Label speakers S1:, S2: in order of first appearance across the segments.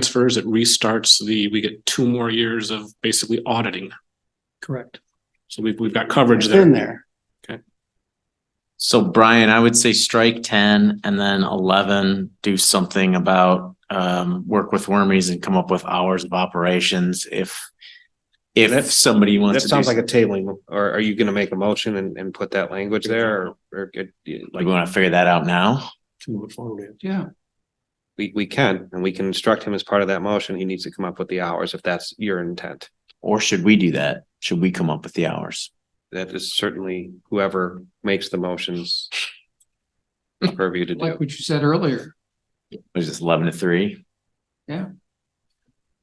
S1: transfers, it restarts the, we get two more years of basically auditing.
S2: Correct.
S1: So we've, we've got coverage
S2: It's in
S1: there.
S2: there.
S3: So Brian, I would say strike ten and then eleven, do something about um work with wormies and come up with hours of operations if.
S4: That-
S3: If somebody
S4: That
S3: wants to.
S4: sounds like a tabling, or are you gonna make a motion and, and put that language there, or, or, could you-
S3: Like,
S4: like,
S3: we wanna figure that out now?
S1: To move forward with.
S2: Yeah.
S4: we, we can, and we can instruct him as part of that motion, he needs to come up with the hours, if that's your intent.
S3: Or should we do that? Should we come up with the hours?
S4: That is certainly whoever makes the motions purview to
S5: like
S4: do.
S5: what you said earlier.
S3: What is this eleven to three?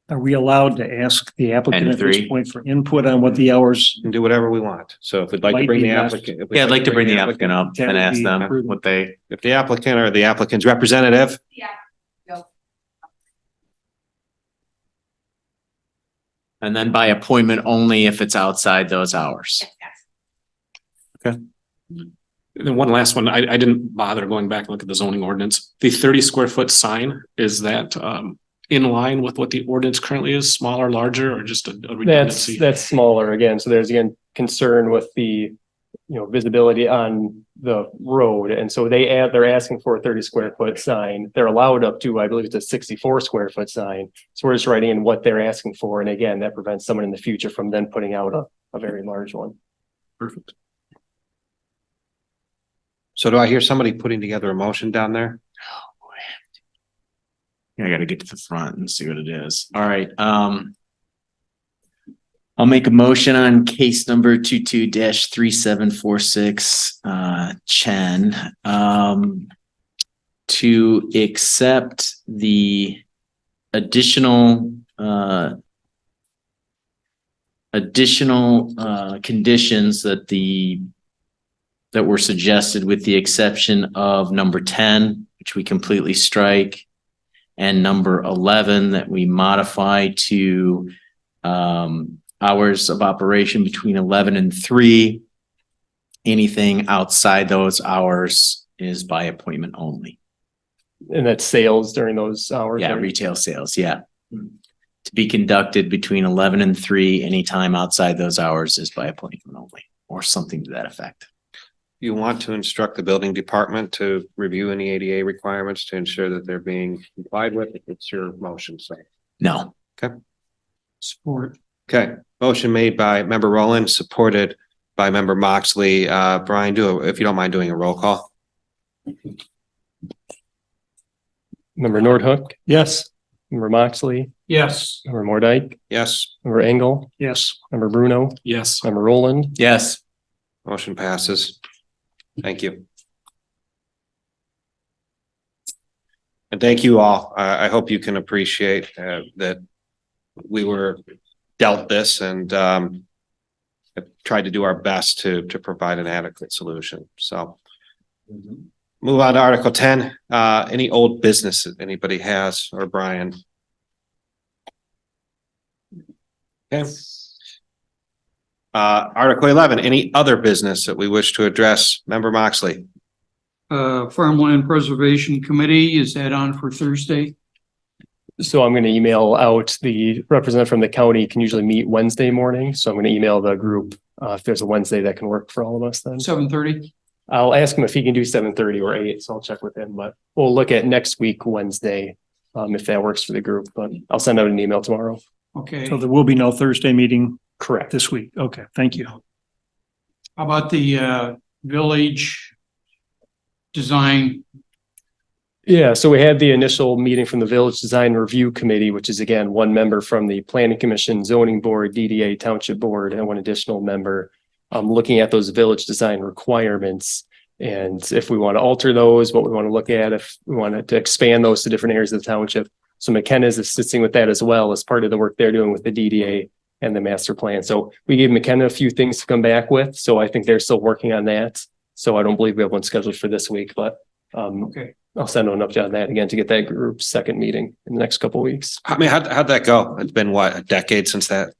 S2: Are we allowed to ask the applicant at this
S3: three.
S2: point for input on what the hours?
S4: And do whatever we want, so if we'd like to
S2: Might
S4: bring
S2: be
S4: the
S2: best.
S4: applicant. if we'd
S3: Yeah, I'd like to bring the applicant up
S2: That
S3: and
S2: would
S3: ask
S2: be
S3: them
S2: prudent.
S3: what they,
S4: If the applicant or the applicant's representative,
S6: Yeah,
S3: and then by appointment only if it's outside those hours.
S6: yes, yes.
S1: And then one last one, I, I didn't bother going back and look at the zoning ordinance. The thirty square foot sign, is that, um, in line with what the ordinance currently is, smaller, larger, or just a a
S7: That's,
S1: redundancy?
S7: that's smaller again. So there's again concern with the, you know, visibility on the road. And so they add, they're asking for a thirty square foot sign. They're allowed up to, I believe it's a sixty-four square foot sign. So we're just writing in what they're asking for. And again, that prevents someone in the future from then putting out a, a very large one.
S1: Perfect.
S4: so do I hear somebody putting together a motion down there?
S3: I gotta get to the front and see what it is. All right, um. I'll make a motion on case number 22 three seven four six, uh, Chen, um. To accept the additional, uh. Additional, uh, conditions that the. That were suggested with the exception of number ten, which we completely strike and number eleven that we modify to um, hours of operation between eleven and three. Anything outside those hours is by appointment only.
S7: And that's sales during those hours.
S3: Yeah,
S7: right?
S3: retail sales, yeah. To be conducted between eleven and three, anytime outside those hours is by appointment only, or something to that effect.
S4: You want to instruct the building department to review any ADA requirements to ensure that they're being complied with, if it's your motion, so.
S3: No,
S5: Support.
S4: Okay, motion made by member Rowland, supported by member Moxley. Uh, Brian, do, a- if you don't mind doing a roll call.
S7: Member Nordhook,
S2: Yes.
S7: member Moxley,
S5: Yes,
S7: member Mordike,
S4: Yes,
S7: member Engel,
S2: Yes.
S7: member Bruno,
S1: Yes.
S7: member Roland,
S3: yes,
S4: motion passes. Thank you. And thank you all. I, I hope you can appreciate, uh, that we were dealt this and, um, tried to do our best to, to provide an adequate solution, so. Move on to Article ten, uh, any old business that anybody has or Brian? Okay. Uh, Article eleven, any other business that we wish to address? Member Moxley,
S5: uh, Farmland Preservation Committee, is that on for Thursday?
S7: So I'm going to email out the representative from the county can usually meet Wednesday morning. So I'm going to email the group uh, if there's a Wednesday that can work for all of us then.
S5: Seven thirty?
S7: I'll ask him if he can do seven thirty or eight. So I'll check with him, but we'll look at next week, Wednesday, um, if that works for the group, but I'll send out an email tomorrow.
S5: Okay,
S2: So
S5: how
S2: there will be no Thursday meeting
S7: Correct.
S2: this week. Okay, thank you.
S5: about the, uh, village design?
S7: Yeah, so we had the initial meeting from the Village Design Review Committee, which is again, one member from the Planning Commission, Zoning Board, DDA Township Board, and one additional member. Um, looking at those village design requirements and if we want to alter those, what we want to look at, if we wanted to expand those to different areas of the township. So McKenna is assisting with that as well as part of the work they're doing with the DDA and the master plan. So we gave McKenna a few things to come back with, so I think they're still working on that. So I don't believe we have one scheduled for this week, but um,
S5: Okay,
S7: I'll send an update on that again to get that group's second meeting in the next couple weeks.
S4: I mean, how'd, how'd that go? It's been what, a decade since that?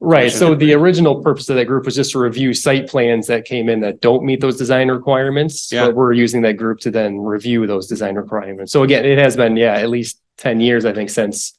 S7: Right,
S4: Gotcha.
S7: so the original purpose of that group was just to review site plans that came in that don't meet those design requirements.
S4: Yeah.
S7: But we're using that group to then review those design requirements. So again, it has been, yeah, at least ten years, I think, since